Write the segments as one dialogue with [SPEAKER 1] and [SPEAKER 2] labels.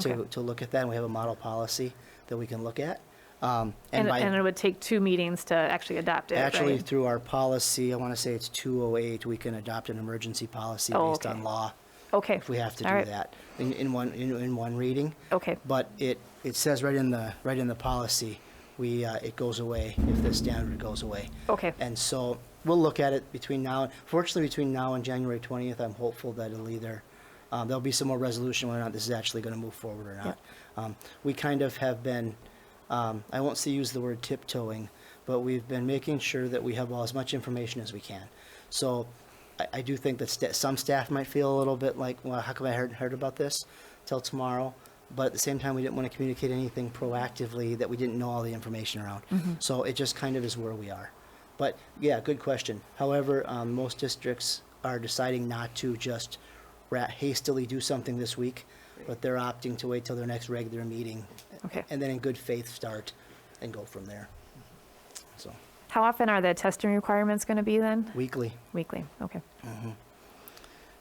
[SPEAKER 1] to,
[SPEAKER 2] Okay.
[SPEAKER 1] to look at that, and we have a model policy that we can look at. Um,
[SPEAKER 2] And,
[SPEAKER 1] by-
[SPEAKER 2] and it would take two meetings to actually adopt it,
[SPEAKER 1] Actually,
[SPEAKER 2] right?
[SPEAKER 1] through our policy, I want to say it's 208, we can adopt an emergency policy
[SPEAKER 2] Oh,
[SPEAKER 1] based
[SPEAKER 2] okay.
[SPEAKER 1] on law
[SPEAKER 2] Okay.
[SPEAKER 1] if we have to
[SPEAKER 2] All
[SPEAKER 1] do
[SPEAKER 2] right.
[SPEAKER 1] that in, in one, in, in one reading.
[SPEAKER 2] Okay.
[SPEAKER 1] But it, it says right in the, right in the policy, we, uh, it goes away if the standard goes away.
[SPEAKER 2] Okay.
[SPEAKER 1] And so we'll look at it between now, fortunately, between now and January 20th, I'm hopeful that it'll either, um, there'll be some more resolution whether or not this is actually going to move forward or not. Um, We kind of have been, um, I won't say use the word tiptoeing, but we've been making sure that we have all as much information as we can. So I, I do think that sta- some staff might feel a little bit like, well, how come I hadn't heard about this till tomorrow? But at the same time, we didn't want to communicate anything proactively that we didn't know all the information around. So it just kind of is where we are. But yeah, good question. However, um, most districts are deciding not to just ra- hastily do something this week, but they're opting to wait till their next regular meeting.
[SPEAKER 2] Okay.
[SPEAKER 1] And then in good faith start and go from there. So
[SPEAKER 2] How often are the testing requirements going to be then?
[SPEAKER 1] weekly.
[SPEAKER 2] Weekly, okay.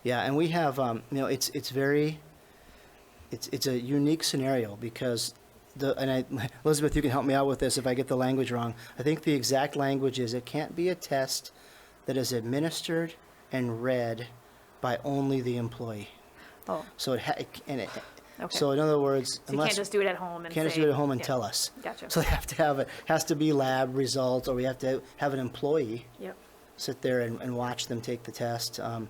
[SPEAKER 1] Yeah, and we have, um, you know, it's, it's very, it's, it's a unique scenario because the, and I, Elizabeth, you can help me out with this if I get the language wrong. I think the exact language is it can't be a test that is administered and read by only the employee.
[SPEAKER 2] Oh,
[SPEAKER 1] So it, ha- it c- and it,
[SPEAKER 2] Okay.
[SPEAKER 1] so in other words,
[SPEAKER 2] so you can't
[SPEAKER 1] unless,
[SPEAKER 2] just do it at home and
[SPEAKER 1] can't just
[SPEAKER 2] say-
[SPEAKER 1] do it at home and
[SPEAKER 2] yeah.
[SPEAKER 1] tell us.
[SPEAKER 2] Gotcha.
[SPEAKER 1] So they have to have, it has to be lab results or we have to have an employee
[SPEAKER 2] Yep,
[SPEAKER 1] sit there and, and watch them take the test. Um,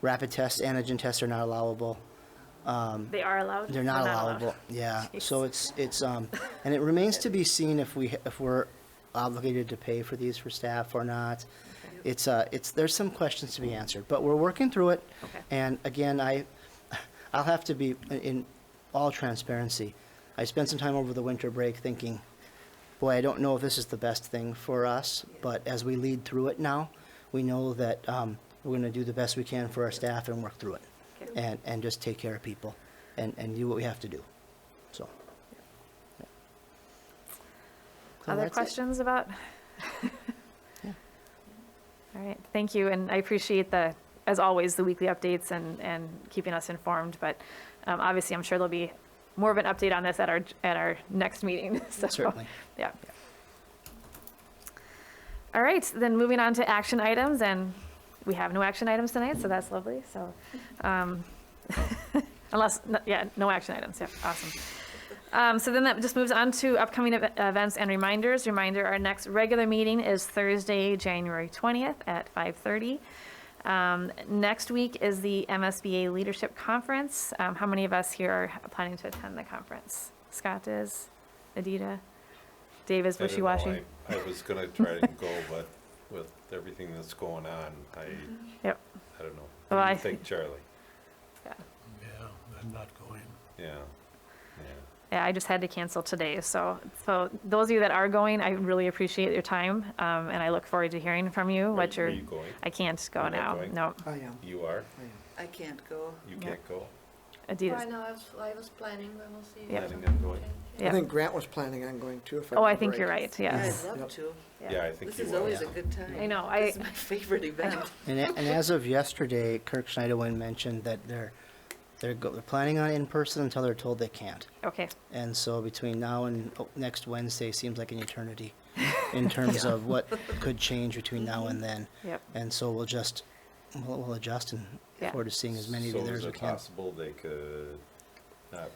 [SPEAKER 1] rapid tests, antigen tests are not allowable.
[SPEAKER 2] they are allowed?
[SPEAKER 1] They're
[SPEAKER 2] or
[SPEAKER 1] not
[SPEAKER 2] allowed?
[SPEAKER 1] allowable. Yeah. So it's it's um, and it remains to be seen if we if we're obligated to pay for these for staff or not. It's uh, it's there's some questions to be answered, but we're working through it.
[SPEAKER 2] Okay.
[SPEAKER 1] And again, I, I'll have to be in all transparency. I spent some time over the winter break thinking, boy, I don't know if this is the best thing for us, but as we lead through it now, we know that um, we're going to do the best we can for our staff and work through it
[SPEAKER 2] Okay.
[SPEAKER 1] and, and just take care of people and, and do what we have to do. So. yeah. So
[SPEAKER 2] Other
[SPEAKER 1] that's it.
[SPEAKER 2] questions about? All right, thank you, and I appreciate the, as always, the weekly updates and, and keeping us informed, but um, obviously, I'm sure there'll be more of an update on this at our, at our next meeting, so.
[SPEAKER 1] Certainly.
[SPEAKER 2] Yeah. All right, then moving on to action items, and we have no action items tonight, so that's lovely, so. um, Unless, no- yeah, no action items, yeah, awesome. Um, So then that just moves on to upcoming ev- events and reminders. Reminder, our next regular meeting is Thursday, January 20th at 5:30. Um, Next week is the MSBA Leadership Conference. Um, How many of us here are planning to attend the conference? Scott is, Adita, Dave is
[SPEAKER 3] I don't know,
[SPEAKER 2] wishy-washy.
[SPEAKER 3] I I was gonna try and go, but with everything that's going on, I,
[SPEAKER 2] Yep,
[SPEAKER 3] I don't know.
[SPEAKER 2] Well,
[SPEAKER 3] What do
[SPEAKER 2] I-
[SPEAKER 3] you think, Charlie?
[SPEAKER 2] yeah.
[SPEAKER 4] Yeah, I'm not going.
[SPEAKER 3] Yeah, yeah.
[SPEAKER 2] Yeah, I just had to cancel today, so, so those of you that are going, I really appreciate your time, um, and I look forward to hearing from you,
[SPEAKER 3] Are-
[SPEAKER 2] what
[SPEAKER 3] are
[SPEAKER 2] your.
[SPEAKER 3] you going?
[SPEAKER 2] I can't go
[SPEAKER 3] You're not
[SPEAKER 2] now,
[SPEAKER 3] going?
[SPEAKER 2] no,
[SPEAKER 5] I am.
[SPEAKER 3] You are?
[SPEAKER 6] I can't go.
[SPEAKER 3] You
[SPEAKER 2] Yeah.
[SPEAKER 3] can't go?
[SPEAKER 7] I
[SPEAKER 2] Adidas,
[SPEAKER 7] know, I was, I was planning, but we'll see.
[SPEAKER 2] Yeah.
[SPEAKER 3] Planning on going?
[SPEAKER 5] I
[SPEAKER 2] yeah.
[SPEAKER 5] think Grant was planning on going too, if I
[SPEAKER 2] Oh, I
[SPEAKER 5] remember
[SPEAKER 2] think you're
[SPEAKER 5] right.
[SPEAKER 2] right,
[SPEAKER 6] Yeah,
[SPEAKER 2] yes.
[SPEAKER 6] I'd love
[SPEAKER 5] Yep.
[SPEAKER 6] to.
[SPEAKER 3] Yeah, I think
[SPEAKER 6] This
[SPEAKER 3] you
[SPEAKER 6] is
[SPEAKER 3] will.
[SPEAKER 6] always a
[SPEAKER 3] Yeah.
[SPEAKER 6] good time.
[SPEAKER 2] I know,
[SPEAKER 6] This
[SPEAKER 2] I-
[SPEAKER 6] is my favorite event.
[SPEAKER 1] And, a- and as of yesterday, Kirk Schneiderwin mentioned that they're, they're, go- they're planning on in-person until they're told they can't.
[SPEAKER 2] Okay,
[SPEAKER 1] And so between now and oh, next Wednesday seems like an eternity in terms of what could change between now and then.
[SPEAKER 2] Yep.
[SPEAKER 1] And so we'll just, we'll, we'll adjust and
[SPEAKER 2] Yeah.
[SPEAKER 1] look forward to seeing as many of you
[SPEAKER 3] So
[SPEAKER 1] there as
[SPEAKER 3] is
[SPEAKER 1] we
[SPEAKER 3] it
[SPEAKER 1] can.
[SPEAKER 3] possible they could not,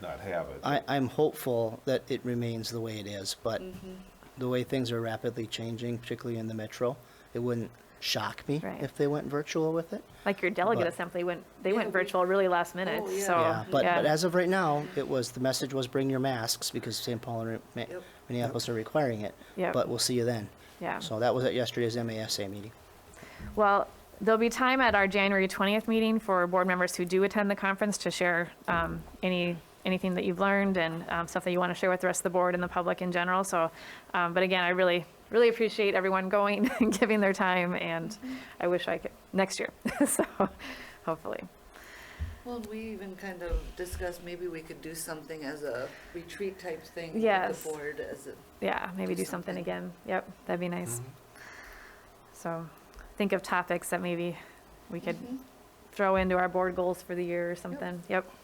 [SPEAKER 3] not have it?
[SPEAKER 1] I, I'm hopeful that it remains the way it is, but
[SPEAKER 2] Mm-hmm.
[SPEAKER 1] the way things are rapidly changing, particularly in the metro, it wouldn't shock me
[SPEAKER 2] Right.
[SPEAKER 1] if they went virtual with it.
[SPEAKER 2] like your delegate
[SPEAKER 1] But-
[SPEAKER 2] assembly went, they went
[SPEAKER 6] we-
[SPEAKER 2] virtual really last minute,
[SPEAKER 6] Oh, yeah.
[SPEAKER 2] so,
[SPEAKER 1] Yeah, but, but
[SPEAKER 2] yeah,
[SPEAKER 1] as of right now, it was, the message was bring your masks because St. Paul and Ma-
[SPEAKER 6] Yep.
[SPEAKER 1] Minneapolis are requiring it.
[SPEAKER 2] Yep.
[SPEAKER 1] But we'll see you then.
[SPEAKER 2] yeah.
[SPEAKER 1] So that was at yesterday's MASA meeting.
[SPEAKER 2] Well, there'll be time at our January 20th meeting for board members who do attend the conference to share um, any, anything that you've learned and um, stuff that you want to share with the rest of the board and the public in general. So, um, but again, I really, really appreciate everyone going and giving their time, and I wish I could, next year, so, hopefully.
[SPEAKER 6] Well, we even kind of discussed maybe we could do something as a retreat type thing with
[SPEAKER 2] Yes.
[SPEAKER 6] the board as a.
[SPEAKER 2] Yeah, maybe
[SPEAKER 6] Do
[SPEAKER 2] do something
[SPEAKER 6] something.
[SPEAKER 2] again. Yep, that'd be nice. So, think of topics that maybe we could throw into our board goals for the year or something. Yep, Um,